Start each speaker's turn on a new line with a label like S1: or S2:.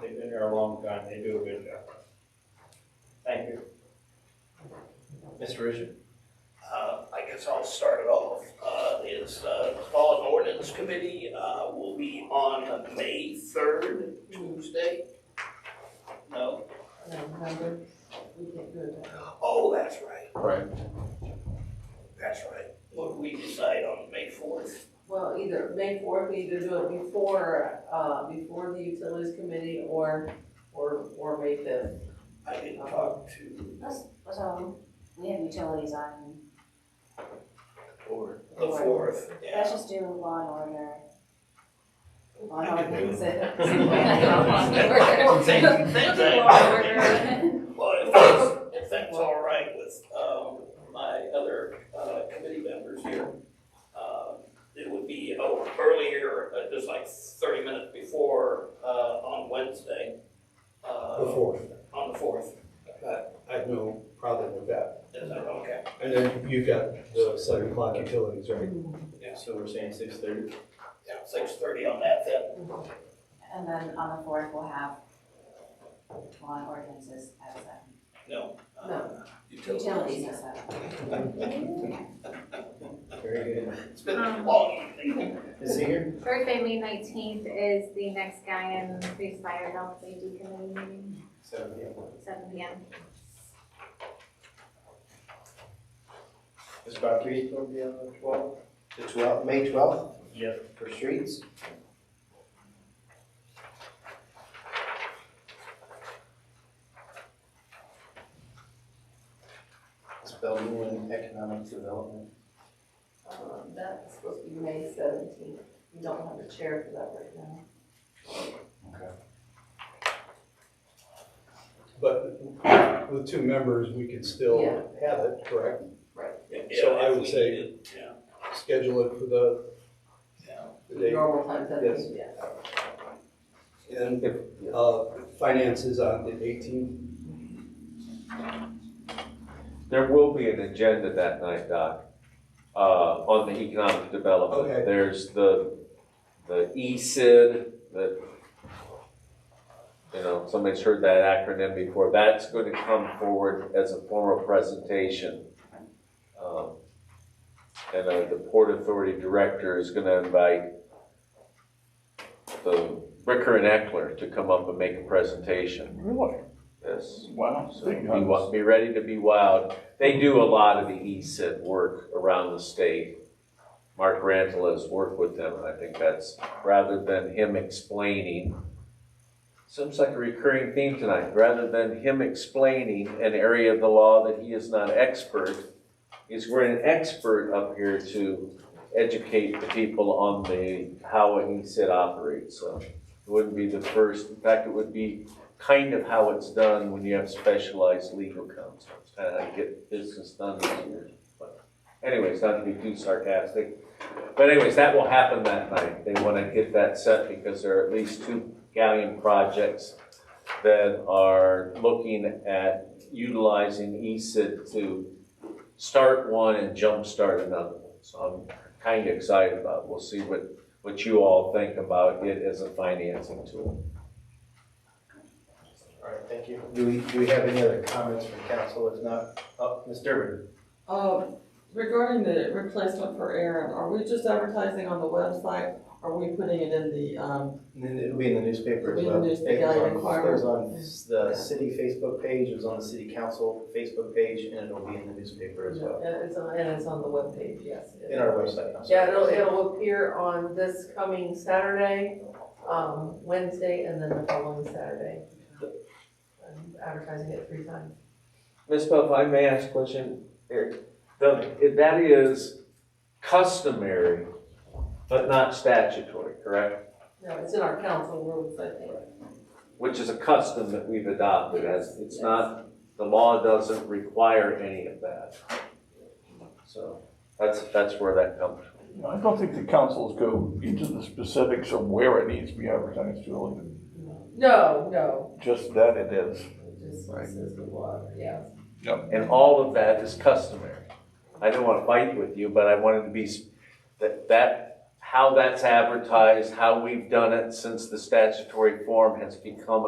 S1: here a long time, they do a good job. Thank you. Mr. Richard?
S2: Uh, I guess I'll start it off, uh, is, uh, the Fallen Ordinance Committee, uh, will be on May third, Tuesday? No?
S3: November, we can't do it.
S2: Oh, that's right,
S4: Right.
S2: that's right. What did we decide on May fourth?
S3: Well, either May fourth, we either do it before, uh, before the utilities committee or, or, or May fifth.
S2: I didn't talk to
S5: So, um, we have utilities on,
S4: Or.
S2: the fourth,
S5: let's
S2: yeah.
S5: just do law and order. Law
S2: I can
S5: and order.
S2: Same- same thing.
S3: Uh,
S5: Law and order.
S2: Well, if that's, if that's all right with, um, my other, uh, committee members here, um, it would be, oh, earlier, uh, just like thirty minutes before, uh, on Wednesday.
S6: The
S2: Uh,
S6: fourth,
S2: on the fourth,
S6: I have no problem with that.
S2: is that okay?
S6: And then you've got the seven o'clock utilities, right?
S4: So we're saying six thirty?
S2: Yeah, six thirty on that then,
S5: And then on the fourth, we'll have law and ordinances at seven,
S2: no. uh,
S3: No.
S2: Utilities.
S5: utilities uh, at seven.
S4: Very good.
S2: It's been a long evening.
S4: Is he here?
S7: Thursday, May nineteenth is the next guy in Free Fire Health Safety Committee meeting,
S4: Seven, yeah.
S7: seven P M.
S4: It's about three, twelve, yeah, twelve. The twelve, May twelfth
S1: Yes.
S4: for streets? It's Bellevue and Economic Development.
S3: Um, that's supposed to be May seventeenth, we don't have a chair for that right now.
S6: But with two members, we could still
S3: Yeah.
S6: have it, correct?
S2: Yeah,
S6: I
S2: if
S6: would
S2: we
S6: say-
S2: did, Yeah,
S6: Schedule it for the,
S2: yeah.
S6: the date.
S3: Normal times, I
S6: Yes.
S3: think, yes.
S6: And if, uh, finance is on the eighteenth,
S8: There will be an agenda that night, Doc, uh, on the economic development.
S6: Okay.
S8: There's the, the E ECID, that, you know, somebody's heard that acronym before. That's going to come forward as a formal presentation. Um, And uh, the Port Authority Director is going to invite the Bricker and Eckler to come up and make a presentation.
S9: Really?
S8: Yes.
S9: Wow.
S8: So be, wi- be ready to be wild. They do a lot of the ESID work around the state. Mark Rantle has worked with them, and I think that's, rather than him explaining, seems like a recurring theme tonight, rather than him explaining an area of the law that he is not expert, is we're an expert up here to educate the people on the, how an ESID operates, so. It wouldn't be the first, in fact, it would be kind of how it's done when you have specialized legal counsel. It's kind of how you get business done here. But Anyways, not to be too sarcastic, but anyways, that will happen that night. They want to get that set because there are at least two galleon projects that are looking at utilizing E ESID to start one and jumpstart another one. So I'm kind of excited about, it. we'll see what, what you all think about it as a financing tool.
S4: All right, thank you. Do we, do we have any other comments from council? If not, oh, Ms. Durbin?
S3: Um, regarding the replacement for Aaron, are we just advertising on the website? Are we putting it in the, um,
S4: And then it'll be in the newspaper as
S3: It'll
S4: well.
S3: be in the newspaper,
S4: It was on-
S3: requirement.
S4: It was on s- the city Facebook page, it was on the city council Facebook page, and it'll be in the newspaper as well,
S3: yeah, it's on, and it's on the webpage, yes. it is.
S4: in our website. I'm sorry.
S3: Yeah, it'll, it'll appear on this coming Saturday, um, Wednesday, and then the following Saturday. I'm advertising it three times.
S8: Ms. Pope, I may ask a question. Eric, the- if that is customary, but not statutory, correct?
S3: No, it's in our council rules, I think.
S8: Which is a custom that we've adopted as, it's not, the law doesn't require any of that. So that's, that's where that comes from.
S9: I don't think the councils go into the specifics of where it needs to be advertised, really.
S3: No, no,
S9: Just that it is.
S3: it just says the law, yeah.
S8: And all of that is customary. I didn't want to fight with you, but I wanted to be, s- that, that, how that's advertised, how we've done it since the statutory form has become